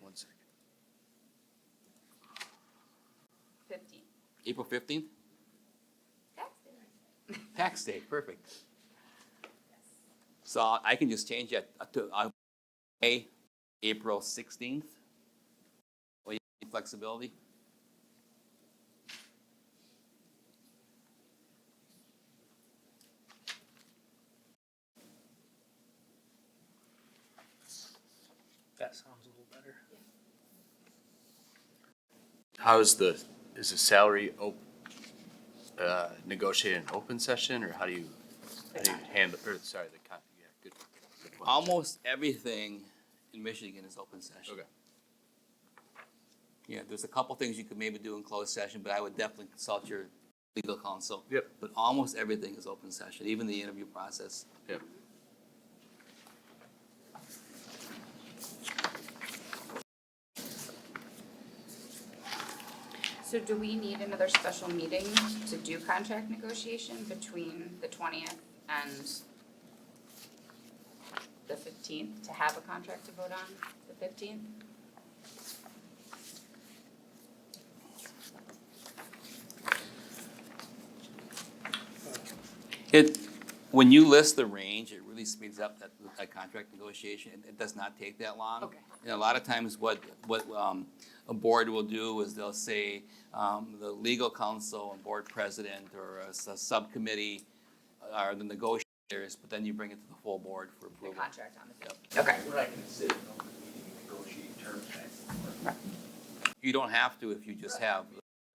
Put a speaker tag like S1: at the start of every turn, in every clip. S1: One second.
S2: Fifteen.
S3: April fifteenth,
S2: That's it.
S3: tax day, perfect. So I can just change that to, uh, A, April sixteenth? Or you have any flexibility?
S4: That sounds a little better.
S1: How is the, is the salary op, uh, negotiated in open session, or how do you, how do you handle, or sorry, the, con- yeah, good. good one.
S3: Almost everything in Michigan is open session.
S1: Okay.
S3: Yeah, there's a couple things you could maybe do in closed session, but I would definitely consult your legal counsel.
S1: Yep.
S3: But almost everything is open session, even the interview process.
S1: Yep.
S2: So do we need another special meeting to do contract negotiation between the twentieth and the fifteenth to have a contract to vote on the fifteenth?
S3: It, when you list the range, it really speeds up that, that contract negotiation. It- It does not take that long.
S2: Okay.
S3: And a lot of times what, what, um, a board will do is they'll say, um, the legal counsel and board president or a, s- a subcommittee are the negotiators, but then you bring it to the full board for
S2: The
S3: approval.
S2: contract on the fifteenth, okay.
S5: We're not considered an open meeting to negotiate terms back and forth.
S3: You don't have to if you just have,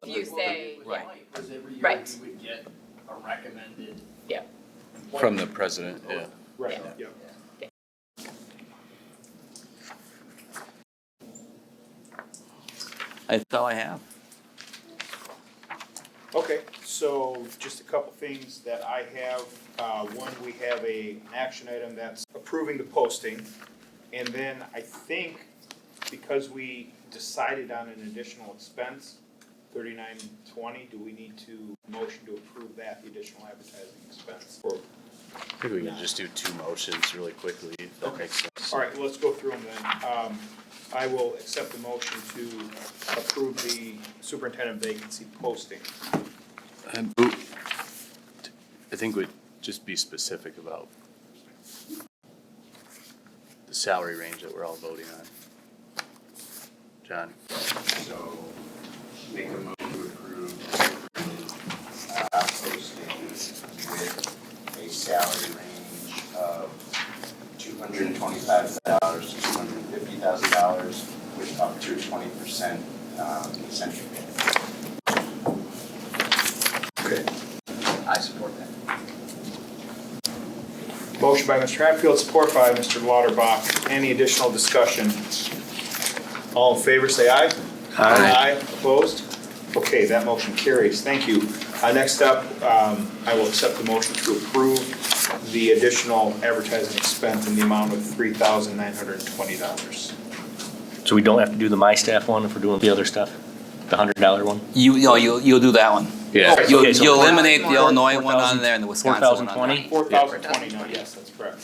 S2: Do you say-
S3: Right.
S5: Because every year
S2: Right.
S5: we would get a recommended.
S2: Yeah.
S1: From the president, yeah.
S6: Right,
S2: Yeah.
S6: yeah.
S3: that's all I have.
S6: Okay, so just a couple things that I have. Uh, one, we have a an action item that's approving the posting. And then I think because we decided on an additional expense, thirty-nine twenty, do we need to motion to approve that, the additional advertising expense? Or-
S1: I think we can just do two motions really quickly, if that makes sense.
S6: All right, well, let's go through them then. Um, I will accept the motion to approve the superintendent vacancy posting.
S1: Um, who- I think we'd just be specific about the salary range that we're all voting on. John,
S5: So make a motion to approve uh, postings with a salary range of two hundred and twenty-five dollars to two hundred and fifty thousand dollars with up to twenty percent eccentric pay. Good. I support that.
S6: Motion by Mr. Hatfield, support by Mr. Lauterbach. Any additional discussion? All in favor, say aye. Aye. opposed? Okay, that motion carries. Thank you. Uh, Next up, um, I will accept the motion to approve the additional advertising expense in the amount of $3,920.
S7: So we don't have to do the My Staff one if we're doing the other stuff? The hundred dollar one?
S3: You, no, you'll, you'll do that one.
S1: Yeah.
S7: Okay,
S3: You'll,
S7: so
S3: you'll
S7: four-
S3: eliminate the
S2: four-
S3: Illinois one on
S7: 4,000
S3: there and the Wisconsin one on there.
S7: 4,020?
S6: $4,020, no, yes, that's correct.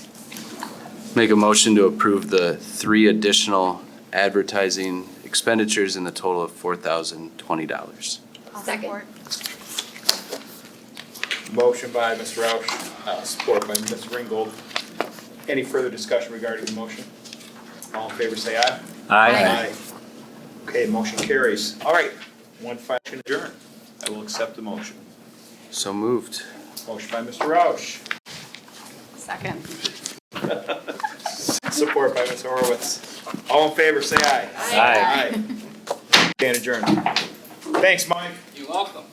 S1: make a motion to approve the three additional advertising expenditures in the total of four thousand twenty dollars.
S2: Second.
S6: Motion by Mr. Roush, uh, support by Ms. Ringgold. Any further discussion regarding the motion? All in favor, say aye.
S2: Aye.
S6: Okay, motion carries. All right, one final adjourn. I will accept the motion.
S1: So moved.
S6: Motion by Mr. Roush,
S2: Second.
S6: support by Ms. Horowitz. All in favor, say aye.
S2: Aye.
S6: Aye. Stand adjourned. Thanks, Mike.
S3: You're welcome.